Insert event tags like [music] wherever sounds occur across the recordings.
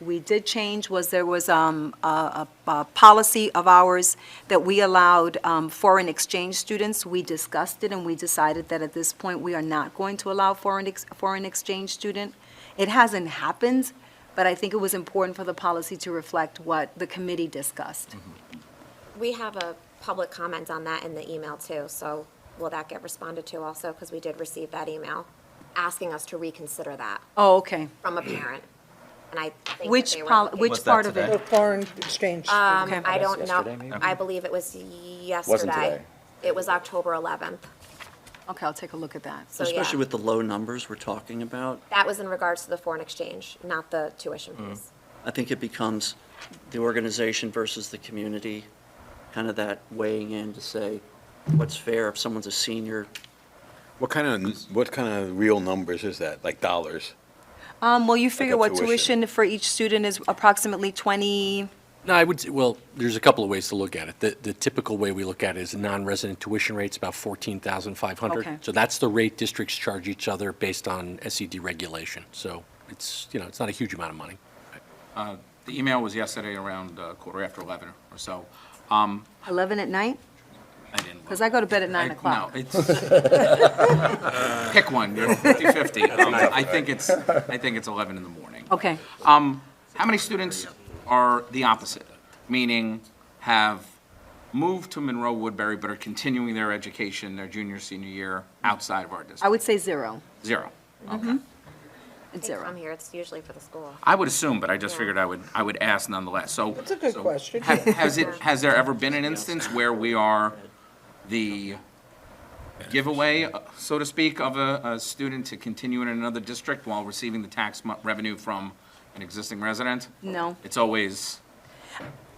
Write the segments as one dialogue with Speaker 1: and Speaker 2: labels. Speaker 1: we did change was there was um, a a- a policy of ours that we allowed um, foreign exchange students. We discussed it, and we decided that at this point, we are not going to allow foreign ex- foreign exchange student. It hasn't happened, but I think it was important for the policy to reflect what the committee discussed.
Speaker 2: Mm-hmm.
Speaker 3: We have a public comment on that in the email too, so will that get responded to also? Because we did receive that email asking us to reconsider that
Speaker 1: Oh, okay.
Speaker 3: from a parent. And I think that
Speaker 1: Which,
Speaker 3: they were
Speaker 1: pol-
Speaker 3: looking-
Speaker 1: which
Speaker 2: What's that
Speaker 1: part of
Speaker 2: today?
Speaker 1: it?
Speaker 4: For foreign exchange.
Speaker 3: Um,
Speaker 1: okay.
Speaker 3: I don't
Speaker 5: Yesterday,
Speaker 3: know.
Speaker 5: maybe?
Speaker 3: I believe it was yesterday.
Speaker 5: today.
Speaker 3: It was October 11th.
Speaker 1: Okay, I'll take a look at that.
Speaker 3: So yeah,
Speaker 6: Especially with the low numbers we're talking about,
Speaker 3: that was in regards to the foreign exchange, not the tuition
Speaker 5: Mm.
Speaker 3: fees.
Speaker 6: I think it becomes the organization versus the community, kind of that weighing in to say, what's fair if someone's a senior?
Speaker 7: What kind of, what kind of real numbers is that, like dollars?
Speaker 1: Um, Well, you figure
Speaker 7: a
Speaker 1: what
Speaker 7: tuition.
Speaker 1: tuition for each student is approximately 20,
Speaker 8: No, I would, s- well, there's a couple of ways to look at it. The, the typical way we look at it is non-resident tuition rate's about fourteen thousand five hundred.
Speaker 1: Okay.
Speaker 8: So that's the rate districts charge each other based on SED regulation. So it's, you know, it's not a huge amount of money.
Speaker 9: The email was yesterday around uh, quarter after 11 or so. Um,
Speaker 1: 11 at night?
Speaker 9: I didn't.
Speaker 1: Because I go to bed at 9
Speaker 9: I-
Speaker 1: o'clock.
Speaker 9: No, it's, uh, pick one, you're 50/50. Um, I think it's, I think it's 11 in the morning.
Speaker 1: Okay.
Speaker 9: How many students are the opposite, meaning have moved to Monroe Woodbury but are continuing their education, their junior, senior year outside of our
Speaker 1: I
Speaker 9: district?
Speaker 1: would Mm-hmm. say zero.
Speaker 9: Zero.
Speaker 1: It's
Speaker 3: They come
Speaker 1: zero.
Speaker 3: here, it's usually for the school.
Speaker 9: I would assume, but I just
Speaker 3: Yeah.
Speaker 9: figured I would, I would ask nonetheless, so.
Speaker 4: That's a good
Speaker 9: so
Speaker 4: question.
Speaker 9: ha- Has it, has there ever been an instance where we are the giveaway, uh, so to speak, of a, a student to continue in another district while receiving the tax mo- revenue from an existing resident?
Speaker 1: No.
Speaker 9: It's always,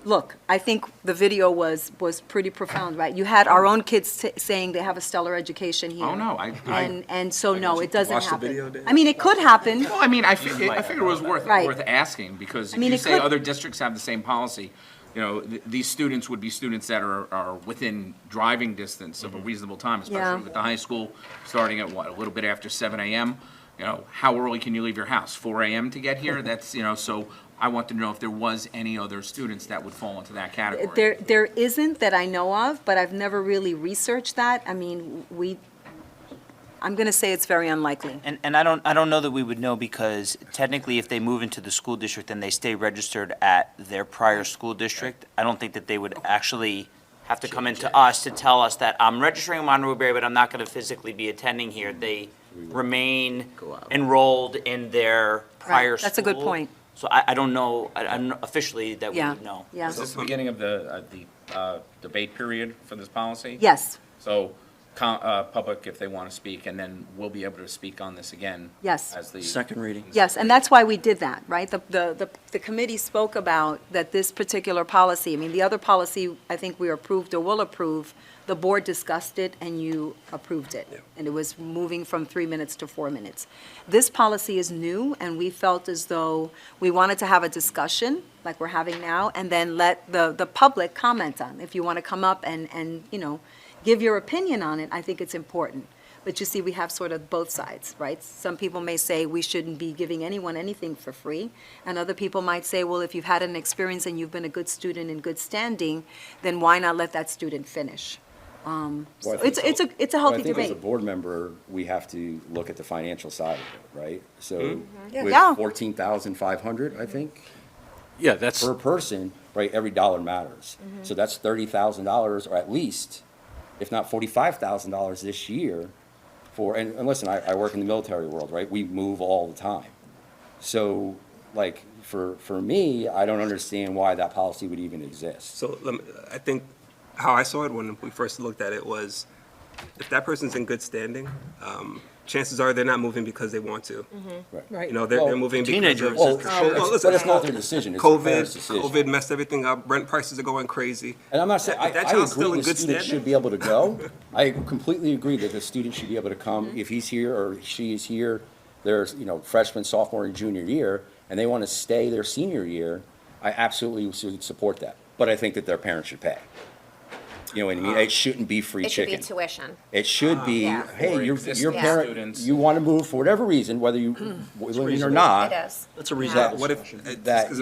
Speaker 1: Look, I think the video was, was pretty profound, right? You had our own kids sa- saying they have a stellar education here.
Speaker 9: oh, no, I, I,
Speaker 1: And, and so, no, it doesn't
Speaker 5: Watch the
Speaker 1: happen.
Speaker 5: video, Dave.
Speaker 1: I mean, it could happen.
Speaker 9: well, I mean, I figured, I figured it was worth,
Speaker 1: Right.
Speaker 9: worth asking, because
Speaker 1: I
Speaker 9: if
Speaker 1: mean,
Speaker 9: you
Speaker 1: it
Speaker 9: say
Speaker 1: could-
Speaker 9: other districts have the same policy, you know, th- these students would be students that are, are within driving distance of a reasonable time,
Speaker 1: Yeah.
Speaker 9: especially with the high school, starting at what, a little bit after seven AM? You know, how early can you leave your house? Four AM to get
Speaker 1: [laughs]
Speaker 9: here? That's, you know, so I want to know if there was any other students that would fall into that category.
Speaker 1: There, there isn't that I know of, but I've never really researched that. I mean, we, I'm going to say it's very unlikely.
Speaker 10: And, and I don't, I don't know that we would know because technically if they move into the school district and they stay registered at their prior school district, I don't think that they would actually have to come into us to tell us that I'm registering in Monterey Bay, but I'm not going to physically be attending here. They remain enrolled in their prior
Speaker 1: Right,
Speaker 10: school.
Speaker 1: that's a good point.
Speaker 10: So I, I don't know, I, I'm officially that we
Speaker 1: Yeah,
Speaker 10: would know.
Speaker 1: yeah.
Speaker 9: Is this the beginning of the, uh, the uh, debate period for this policy?
Speaker 1: Yes,
Speaker 9: So, com- uh, public, if they want to speak, and then we'll be able to speak on this again.
Speaker 1: Yes.
Speaker 9: As the.
Speaker 6: Second reading.
Speaker 1: yes, and that's why we did that, right? The, the, the- the committee spoke about that this particular policy, I mean, the other policy, I think we approved or will approve, the board discussed it and you approved it. And it was moving from three minutes to four minutes. This policy is new, and we felt as though we wanted to have a discussion, like we're having now, and then let the, the public comment on. If you want to come up and, and, you know, give your opinion on it, I think it's important. But you see, we have sort of both sides, right? Some people may say we shouldn't be giving anyone anything for free, and other people might say, well, if you've had an experience and you've been a good student in good standing, then why not let that student finish? Um,
Speaker 5: Well, I
Speaker 1: so
Speaker 5: think
Speaker 1: It's, it's a, it's a
Speaker 5: Well,
Speaker 1: healthy
Speaker 5: I think
Speaker 1: debate.
Speaker 5: as a board member, we have to look at the financial side of it, right? So
Speaker 1: Yeah.
Speaker 5: with fourteen thousand five hundred, I think,
Speaker 8: Yeah, that's,
Speaker 5: per person, right, every dollar matters.
Speaker 1: Mm-hmm.
Speaker 5: So that's thirty thousand dollars, or at least, if not forty-five thousand dollars this year for, and, and listen, I, I work in the military world, right? We move all the time. So, like, for, for me, I don't understand why that policy would even exist.
Speaker 11: So lem- I think how I saw it when we first looked at it was, if that person's in good standing, um, chances are they're not moving because they want to. You know, they're, they're moving because of.
Speaker 6: Teenagers.
Speaker 5: Well,
Speaker 6: Oh,
Speaker 5: it's-
Speaker 11: listen,
Speaker 5: but it's not their decision, it's the
Speaker 11: COVID,
Speaker 5: parents' decision.
Speaker 11: COVID messed everything up, rent prices are going crazy.
Speaker 5: And I'm not saying, I,
Speaker 11: If that
Speaker 5: I
Speaker 11: child's still
Speaker 5: agree
Speaker 11: in
Speaker 5: the
Speaker 11: good
Speaker 5: student
Speaker 11: standing-
Speaker 5: should be able
Speaker 11: [laughs]
Speaker 5: to go. I completely agree that the student should be able to
Speaker 11: Mm-hmm.
Speaker 5: come, if he's here or she is here, there's, you know, freshman, sophomore, and junior year, and they want to stay their senior year, I absolutely should support that. But I think that their parents should pay. You know what I
Speaker 11: Ah.
Speaker 5: mean? It shouldn't be free
Speaker 3: It should be
Speaker 5: chicken.
Speaker 3: tuition.
Speaker 5: It should be,
Speaker 3: Yeah.
Speaker 5: hey,
Speaker 9: Or
Speaker 5: your, your
Speaker 9: existing
Speaker 5: parent,
Speaker 9: students.
Speaker 5: you
Speaker 11: Hmm.
Speaker 5: want to move for whatever reason, whether you, living or not.
Speaker 3: It is.
Speaker 6: That's a
Speaker 3: Yeah.
Speaker 6: reasonable
Speaker 5: That-
Speaker 11: What if, uh,
Speaker 5: That
Speaker 11: because